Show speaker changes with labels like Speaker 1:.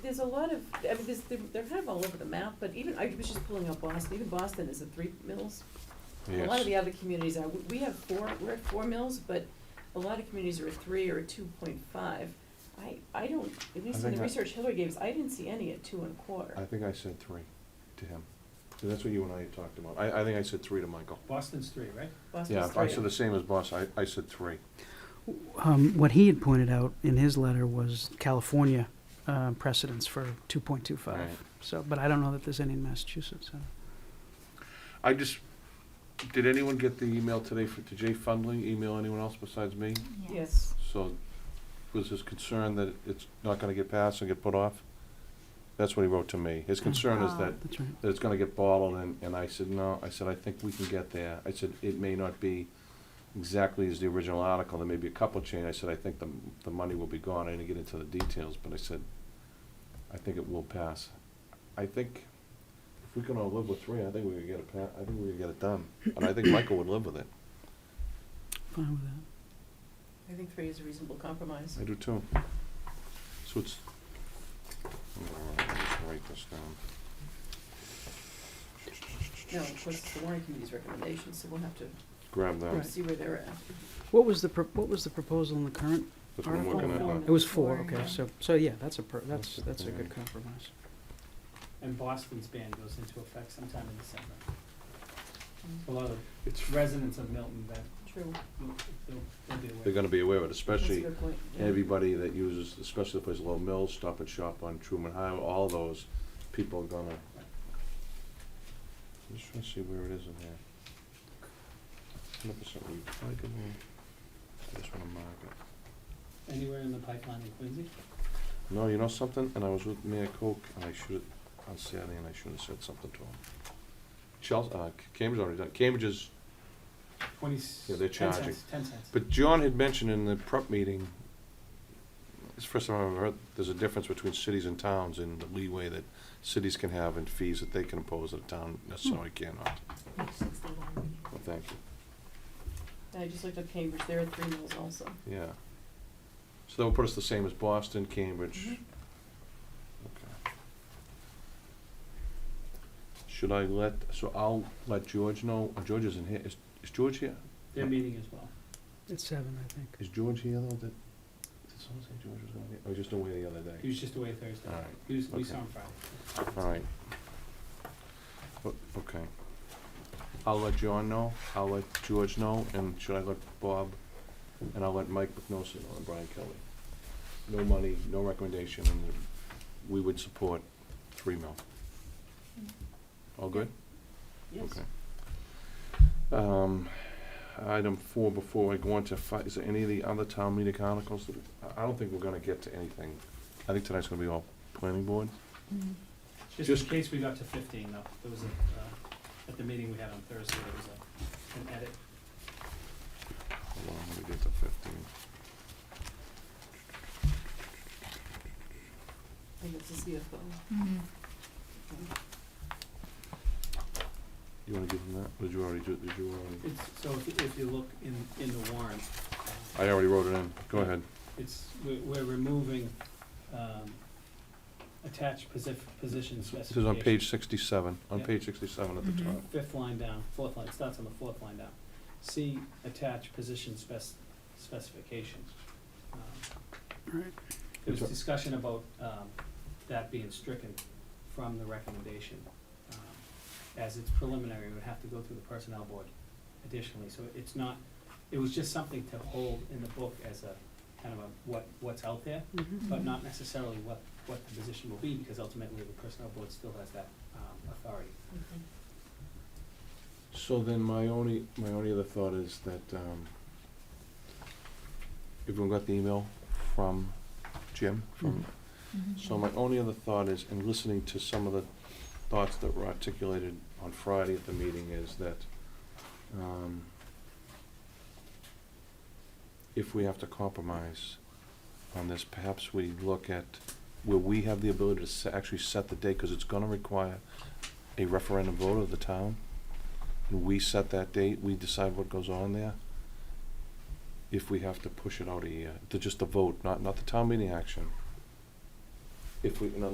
Speaker 1: there's a lot of, I mean, there's, they're, they're kind of all over the map, but even, I was just pulling up Boston, even Boston is at three mills. A lot of the
Speaker 2: Yes,
Speaker 1: other communities are, we- we have four, we're at four mills, but a lot of communities are at three or at two point five. I, I don't, at least in
Speaker 2: think
Speaker 1: the
Speaker 2: I-
Speaker 1: research Hillary gave us, I didn't see any at two and a
Speaker 2: I
Speaker 1: quarter.
Speaker 2: think I said three to him. So that's what you and I had talked about. I, I think I said three to Michael.
Speaker 3: Boston's three, right?
Speaker 1: Boston's
Speaker 2: Yeah,
Speaker 1: three.
Speaker 2: I said the same as boss, I, I said three.
Speaker 4: Um, what he had pointed out in his letter was California uh, precedence for 2.25.
Speaker 2: Right.
Speaker 4: So, but I don't know that there's any in Massachusetts. So.
Speaker 2: I just, did anyone get the email today for, to Jay Fundling, email anyone else besides me?
Speaker 1: Yes,
Speaker 2: So was his concern that it's not gonna get passed and get put off? That's what he wrote to me. His concern is
Speaker 5: Oh.
Speaker 2: that,
Speaker 4: That's right.
Speaker 2: that it's gonna get bottled and, and I said, no, I said, I think we can get there. I said, it may not be exactly as the original article, there may be a couple change. I said, I think the, the money will be gone. I didn't get into the details, but I said, I think it will pass. I think if we can all live with three, I think we could get it pa- I think we could get it done. And I think Michael would live with it.
Speaker 4: Fine with that.
Speaker 1: I think three is a reasonable compromise.
Speaker 2: I do too. So it's, I'm gonna write- just write this down.
Speaker 1: No, of course, it's the warrant committee's recommendations, so we'll have to
Speaker 2: Grab them.
Speaker 4: Right.
Speaker 1: see where they're at.
Speaker 4: What was the pro- what was the proposal in the current?
Speaker 2: That's what I'm looking at.
Speaker 4: Article
Speaker 2: now.
Speaker 1: four.
Speaker 4: It was four.
Speaker 5: Four,
Speaker 4: Okay,
Speaker 5: yeah.
Speaker 4: so so yeah, that's a per- that's
Speaker 2: That's
Speaker 4: that's a good
Speaker 2: okay.
Speaker 4: compromise.
Speaker 3: And Boston's ban goes into effect sometime in December.
Speaker 1: Mm,
Speaker 3: A lot
Speaker 2: It's-
Speaker 3: of residents of Milton that,
Speaker 1: True,
Speaker 3: will- they'll, they'll be aware.
Speaker 2: They're gonna be aware of it,
Speaker 1: that's a
Speaker 2: especially
Speaker 1: good point. yeah.
Speaker 2: everybody that uses, especially the place Low Mill, Stop and Shop on Truman Highway, all those, people are gonna. I'm just trying to see where it is in there. Hundred percent recyclable. I just wanna mark it.
Speaker 3: Anywhere in the pipeline in Quincy?
Speaker 2: No, you know something? And I was with Mayor Coke, and I should on Saturday, and I should have said something to him. Chelsea, uh, C- Cambridge already done. Cambridge is,
Speaker 3: Twenty,
Speaker 2: Yeah,
Speaker 3: s-
Speaker 2: they're
Speaker 3: ten
Speaker 2: charging.
Speaker 3: cents, ten cents.
Speaker 2: but John had mentioned in the prep meeting. It's the first time I've ever heard. There's a difference between cities and towns in the leeway that cities can have and fees that they can impose that a town necessarily cannot. Well, thank you.
Speaker 1: I just looked up Cambridge, there are three mills also.
Speaker 2: Yeah. So that would put us the same as Boston, Cambridge.
Speaker 1: Mhm.
Speaker 2: Okay. Should I let, so I'll let George know, oh, George isn't here, is, is George here?
Speaker 3: They're meeting as well.
Speaker 4: It's seven, I think.
Speaker 2: Is George here though, did, did someone say George was gonna be, I was just away the other
Speaker 3: He
Speaker 2: day?
Speaker 3: was just away Thursday.
Speaker 2: All right,
Speaker 3: He was, we
Speaker 2: okay.
Speaker 3: saw him Friday.
Speaker 2: Alright. O- Okay. I'll let John know, I'll let George know, and should I let Bob, and I'll let Mike McNosa know and Brian Kelly. No money, no recommendation, and we would support three mil. All good?
Speaker 1: Yes.
Speaker 2: Okay. Um, item four, before I go on to five, is there any of the other town meeting articles that, I, I don't think we're gonna get to anything. I think tonight's gonna be all planning board.
Speaker 3: Just in
Speaker 2: Just-
Speaker 3: case we got to fifteen though, there was a, uh, at the meeting we had on Thursday, there was a, an edit.
Speaker 2: Hold on, let me get to fifteen.
Speaker 1: And it's a CFO.
Speaker 2: You wanna give them that? Or Did you already do, did you already?
Speaker 3: It's, so if, if you look in, in the warrant, uh,
Speaker 2: I already wrote it in. Go ahead.
Speaker 3: It's, we're, we're removing, um, attached posi- position
Speaker 2: This is on
Speaker 3: specification.
Speaker 2: page sixty-seven, on
Speaker 3: Yeah.
Speaker 2: page sixty-seven at the
Speaker 5: Mhm.
Speaker 2: top.
Speaker 3: Fifth line down, fourth line, it starts on the fourth line down. See attached position spec- specifications. Um,
Speaker 4: Right.
Speaker 3: There was
Speaker 2: Which are-
Speaker 3: discussion about, um, that being stricken from the recommendation. um, As it's preliminary, it would have to go through the personnel board additionally, so it's not, it was just something to hold in the book as a, kind of a, what, what's out there.
Speaker 4: Mhm.
Speaker 3: but not necessarily what, what the position will be, because ultimately the personnel board still has that, um, authority.
Speaker 2: So then my only, my only other thought is that, um, everyone got the email from Jim, from So my only other thought is, in listening to some of the thoughts that were articulated on Friday at the meeting, is that um, if we have to compromise on this, perhaps we look at where we have the ability to se- actually set the date, because it's gonna require a referendum vote of the town, and we set that date, we decide what goes on there. If we have to push it out a year, to just the vote, not, not the town meeting action. If we, in other